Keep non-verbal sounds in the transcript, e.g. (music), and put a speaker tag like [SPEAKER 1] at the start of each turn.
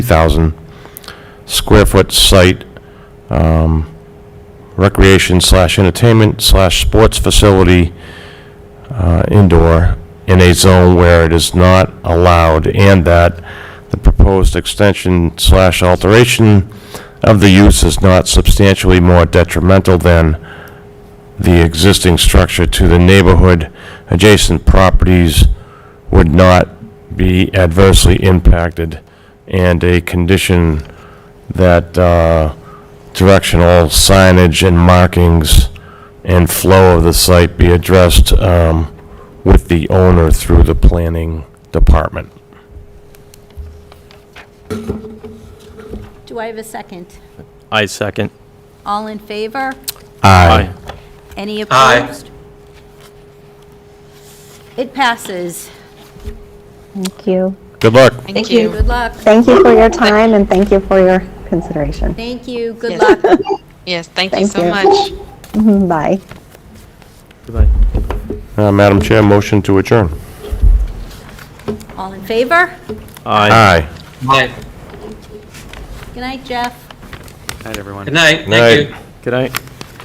[SPEAKER 1] thousand square foot site, um, recreation slash entertainment slash sports facility, uh, indoor, in a zone where it is not allowed, and that the proposed extension slash alteration of the use is not substantially more detrimental than the existing structure to the neighborhood, adjacent properties would not be adversely impacted, and a condition that uh, directional signage and markings and flow of the site be addressed um, with the owner through the planning department.
[SPEAKER 2] Do I have a second?
[SPEAKER 3] I second.
[SPEAKER 2] All in favor?
[SPEAKER 3] Aye.
[SPEAKER 2] Any opposed? It passes.
[SPEAKER 4] Thank you.
[SPEAKER 1] Good luck.
[SPEAKER 5] Thank you.
[SPEAKER 2] Good luck.
[SPEAKER 4] Thank you for your time and thank you for your consideration. (laughs)
[SPEAKER 2] Thank you. Good luck.
[SPEAKER 5] Yes. Yes, thank you
[SPEAKER 4] Thank
[SPEAKER 5] so
[SPEAKER 4] you.
[SPEAKER 5] much.
[SPEAKER 4] Mhm, Bye.
[SPEAKER 3] Goodbye.
[SPEAKER 1] Uh, Madam Chair, motion to adjourn.
[SPEAKER 2] All in favor?
[SPEAKER 3] Aye.
[SPEAKER 1] Aye.
[SPEAKER 2] Good night, Jeff.
[SPEAKER 3] Good night, everyone.
[SPEAKER 6] Good night.
[SPEAKER 1] Night.
[SPEAKER 6] Thank you.
[SPEAKER 3] Good night.